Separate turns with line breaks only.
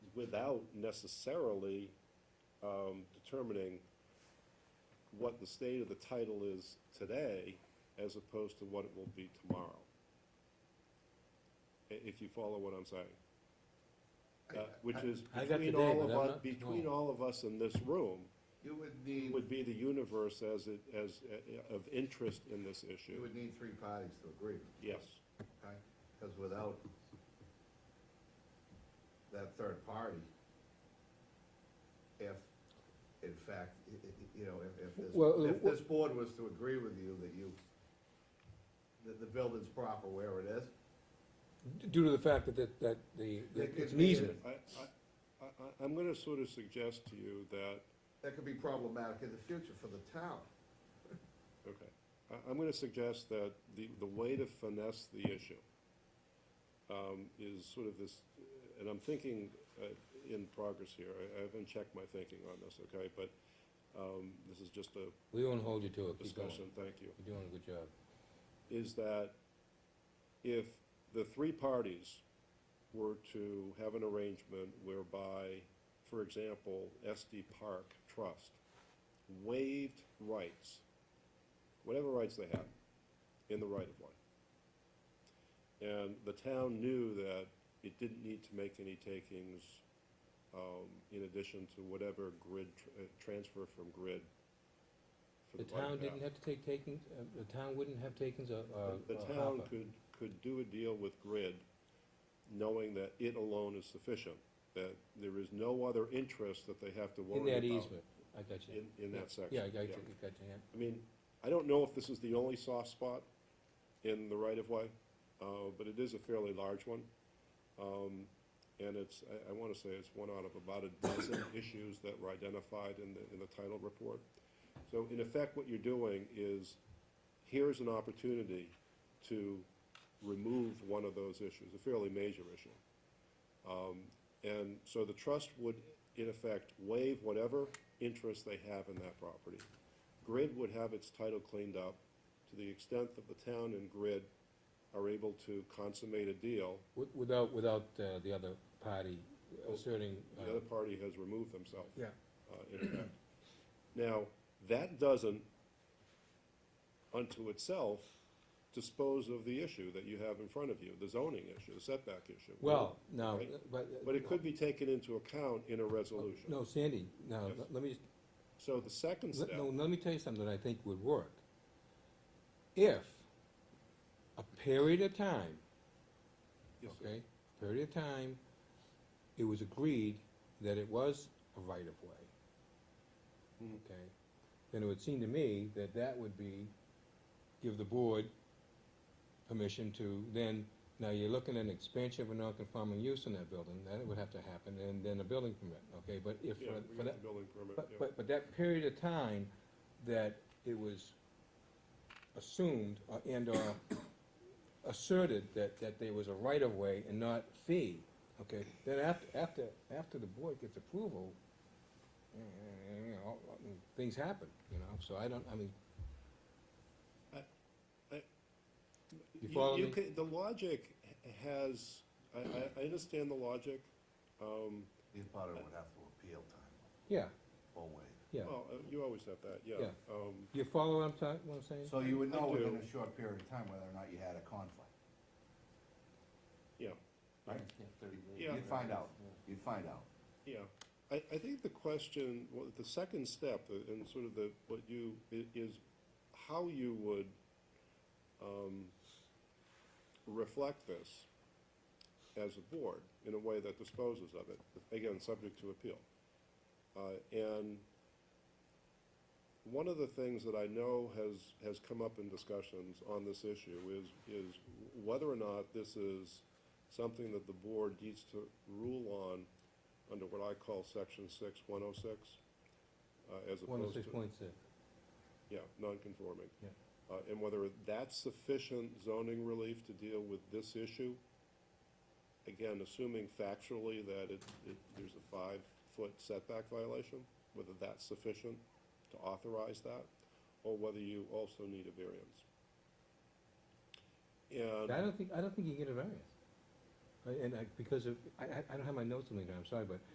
without necessarily, um, determining what the state of the title is today as opposed to what it will be tomorrow. I- if you follow what I'm saying. Uh, which is
I- I got the
between
day,
all
but
of
I'm
us,
not-
between
no.
all of us in this room,
You would need,
would be the universe as it, as, uh, of interest in this
you
issue.
would need three parties to agree,
Yes,
okay? Because without that third party, if, in fact, i- i- you know, if, if
Well, uh,
this, if this board was to agree with you that you, that the building's proper where it is,
due to the fact that, that, that the,
There
that
could
it's an
be a-
easement.
I, I, I, I'm gonna sort of suggest to you that
that could be problematic in the future for the town.
Okay. I, I'm gonna suggest that the, the way to finesse the issue um, is sort of this, and I'm thinking uh, in progress here, I, I haven't checked my thinking on this, okay? But um, this is just a
We won't hold you to it, keep going.
discussion, thank you.
You're doing a good job.
Is that if the three parties were to have an arrangement whereby, for example, SD Park Trust waived rights, whatever rights they have, in the right of way. And the town knew that it didn't need to make any takings, um, in addition to whatever grid, tr- uh, transfer from grid. for
The
right
town
of path.
didn't have to take takings, uh, the town wouldn't have takings, uh, uh.
The
uh,
town
Hopper.
could, could do a deal with Grid, knowing that it alone is sufficient, that there is no other interest that they have to worry
In
about.
that easement, I got you.
In, in
Yeah.
that section.
Yeah, I got you, I got you, yeah.
I mean, I don't know if this is the only soft spot in the right-of-way, uh, but it is a fairly large one. Um, and it's, I, I wanna say it's one out of about a dozen issues that were identified in the, in the title report. So in effect, what you're doing is, here's an opportunity to remove one of those issues, a fairly major issue. Um, and so the trust would, in effect, waive whatever interest they have in that property. Grid would have its title cleaned up to the extent that the town and Grid are able to consummate a deal.
Wi- Without, without, uh, the other party asserting,
The
uh,
other party has removed themselves.
Yeah.
uh, in effect. Now, that doesn't unto itself dispose of the issue that you have in front of you, the zoning issue, the setback issue.
well, no,
Right.
but. uh, oh,
But it could be taken into account in a resolution.
No, Sandy, no,
Yes.
let- let me, just-
So the second
let-
step,
no, let me tell you something that I think would work. If a period of time
Yes, sir.
okay, period of time, it was agreed that it was a right-of-way.
Mm-hmm.
Okay, then it would seem to me that that would be, give the board permission to then, now you're looking at an expansion of a non-conforming use in that building, then it would have to happen, and then a building permit, okay, but if,
yeah,
for-
we
for
got
that,
the building permit,
but,
yeah.
but, but that period of time that it was assumed uh, and or asserted that, that there was a right-of-way and not fee, okay? Then after, after, after the board gets approval, eh, eh, you know, all- all- things happen, you know, so I don't, I mean, You follow me?
can- The logic h- has, I, I, I understand the logic. Um,
Either party would have to appeal time
yeah,
or waive.
yeah.
well, uh, you always have that, yeah.
Yeah.
Um,
You follow what I'm talking, what I'm saying?
So you would
I
know within
do.
a short period of time whether or not you had a conflict.
yeah,
Right.
Yeah.
You'd find out, you'd find out.
yeah. I, I think the question, well, the second step, uh, and sort of the, what you, i- is how you would, um, reflect this as a board in a way that disposes of it, again, subject to appeal. Uh, and one of the things that I know has, has come up in discussions on this issue is, is whether or not this is something that the board needs to rule on under what I call section six, one oh six, uh, as opposed to.
One oh six point six,
Yeah, non-conforming.
Yeah.
Uh, and whether that's sufficient zoning relief to deal with this issue, again, assuming factually that it, it, there's a five-foot setback violation, whether that's sufficient to authorize that, or whether you also need a variance.
I
And,
don't think, I don't think you get a variance. I- and I, because of, I, I I don't have my notes on me now, I'm sorry, but